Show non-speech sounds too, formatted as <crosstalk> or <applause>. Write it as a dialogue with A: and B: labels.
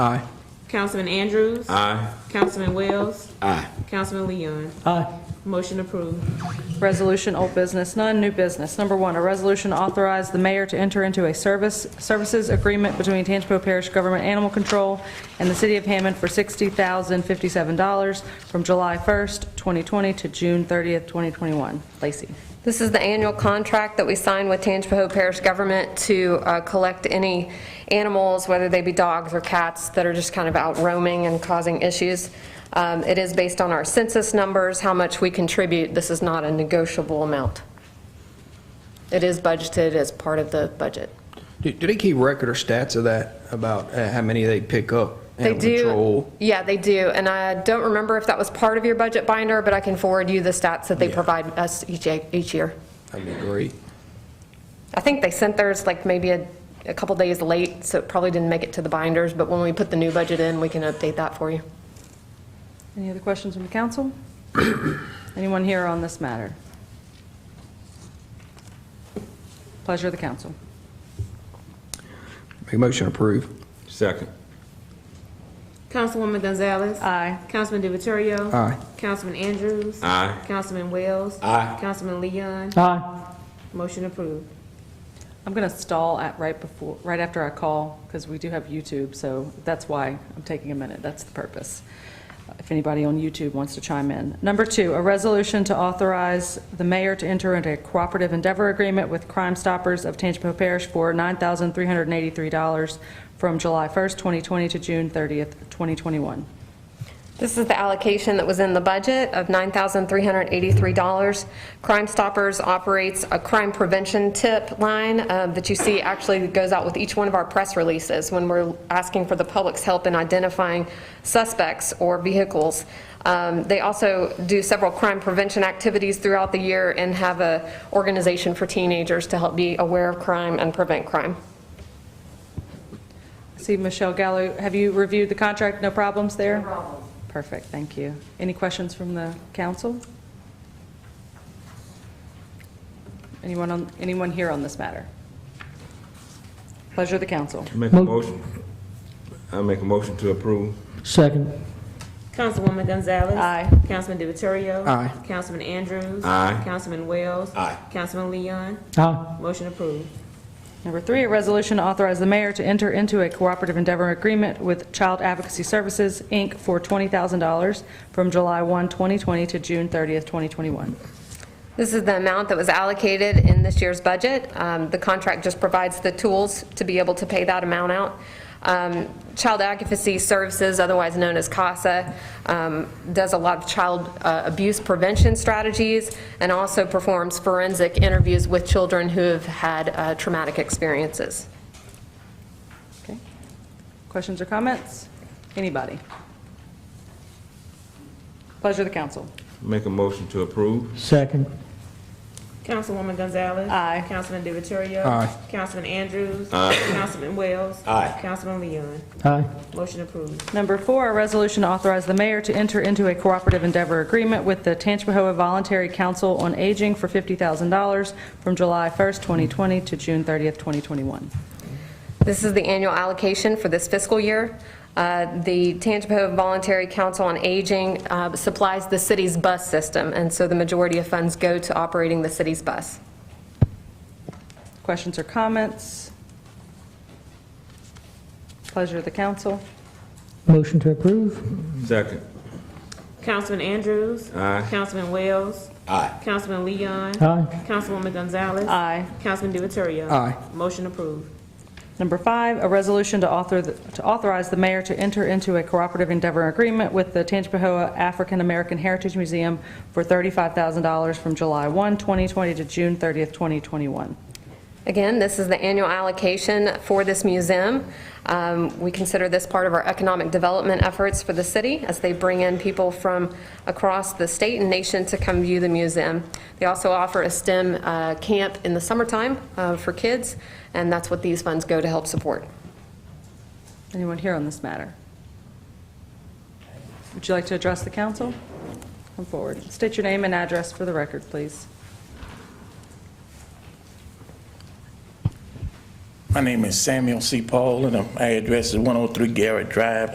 A: Aye.
B: Councilman Andrews.
C: Aye.
B: Councilman Wells.
C: Aye.
B: Councilman Leon.
A: Aye.
B: Motion approved.
D: Resolution, old business, none, new business. Number one, a resolution authorize the mayor to enter into a service, services agreement between Tangipahoa Parish Government Animal Control and the City of Hammond for $60,057 from July 1st, 2020 to June 30th, 2021. Lacy.
E: This is the annual contract that we sign with Tangipahoa Parish Government to uh, collect any animals, whether they be dogs or cats, that are just kind of out roaming and causing issues. Um, It is based on our census numbers, how much we contribute. This is not a negotiable amount. It is budgeted as part of the budget.
A: Do, do they keep record or stats of that, about uh, how many they pick up?
E: They
A: Animal
E: do,
A: control?
E: yeah, they do, and I don't remember if that was part of your budget binder, but I can forward you the stats that they
A: Yeah.
E: provide us each, each year.
A: That'd be great.
E: I think they sent theirs like maybe a, a couple days late, so it probably didn't make it to the binders, but when we put the new budget in, we can update that for you.
D: Any other questions from the <coughs> council? Anyone here on this matter? Pleasure of the council.
A: Make a motion to approve.
C: Second.
B: Councilwoman Gonzalez.
D: Aye.
B: Councilman DiViterio.
A: Aye.
B: Councilman Andrews.
C: Aye.
B: Councilman Wells.
C: Aye.
B: Councilman Leon.
D: Aye.
B: Motion approved.
D: I'm going to stall at right before, right after I call, because we do have YouTube, so that's why I'm taking a minute. That's the purpose. If anybody on YouTube wants to chime in. Number two, a resolution to authorize the mayor to enter into a cooperative endeavor agreement with Crime Stoppers of Tangipahoa Parish for $9,383 from July 1st, 2020 to June 30th, 2021.
E: This is the allocation that was in the budget of $9,383. Crime Stoppers operates a crime prevention tip line uh, that you see actually goes out with each one of our press releases when we're asking for the public's help in identifying suspects or vehicles. Um, They also do several crime prevention activities throughout the year and have a organization for teenagers to help be aware of crime and prevent crime.
D: See, Michelle Gallo, have you reviewed the contract? No problems there? No problems. Perfect, thank you. Any questions from the council? Anyone on, anyone here on this matter? Pleasure of the council.
C: Make a motion. I make a motion to approve.
F: Second.
B: Councilwoman Gonzalez.
D: Aye.
B: Councilman DiViterio.
A: Aye.
B: Councilman Andrews.
C: Aye.
B: Councilman Wells.
C: Aye.
B: Councilman Leon.
F: Aye.
B: Motion approved.
D: Number three, a resolution to authorize the mayor to enter into a cooperative endeavor agreement with Child Advocacy Services, Inc. for $20,000 from July 1, 2020 to June 30th, 2021.
E: This is the amount that was allocated in this year's budget. Um, The contract just provides the tools to be able to pay that amount out. Um, Child Advocacy Services, otherwise known as CASA, um, does a lot of child uh, abuse prevention strategies and also performs forensic interviews with children who have had uh, traumatic experiences.
D: Okay. Questions or comments? Anybody? Pleasure of the council.
C: Make a motion to approve.
F: Second.
B: Councilwoman Gonzalez.
D: Aye.
B: Councilman DiViterio.
A: Aye.
B: Councilman Andrews. Aye. Councilman Wells.
C: Aye.
B: Councilman Leon.
F: Aye.
B: Motion approved.
D: Number four, a resolution to authorize the mayor to enter into a cooperative endeavor agreement with the Tangipahoa Voluntary Council on Aging for $50,000 from July 1st, 2020 to June 30th, 2021.
E: This is the annual allocation for this fiscal year. Uh, The Tangipahoa Voluntary Council on Aging uh, supplies the city's bus system, and so the majority of funds go to operating the city's bus.
D: Questions or comments? Pleasure of the council.
F: Motion to approve.
C: Second.
B: Councilman Andrews.
C: Aye.
B: Councilman Wells.
C: Aye.
B: Councilman Leon.
F: Aye.
B: Councilwoman Gonzalez.
D: Aye.
B: Councilman DiViterio.
A: Aye.
B: Motion approved.
D: Number five, a resolution to author, to authorize the mayor to enter into a cooperative endeavor agreement with the Tangipahoa African American Heritage Museum for $35,000 from July 1, 2020 to June 30th, 2021.
E: Again, this is the annual allocation for this museum. Um, We consider this part of our economic development efforts for the city as they bring in people from across the state and nation to come view the museum. They also offer a STEM uh, camp in the summertime uh, for kids, and that's what these funds go to help support.
D: Anyone here on this matter? Would you like to address the council? Come forward. State your name and address for the record, please.
G: My My name is Samuel C. Paul, and my address is 103 Garrett Drive,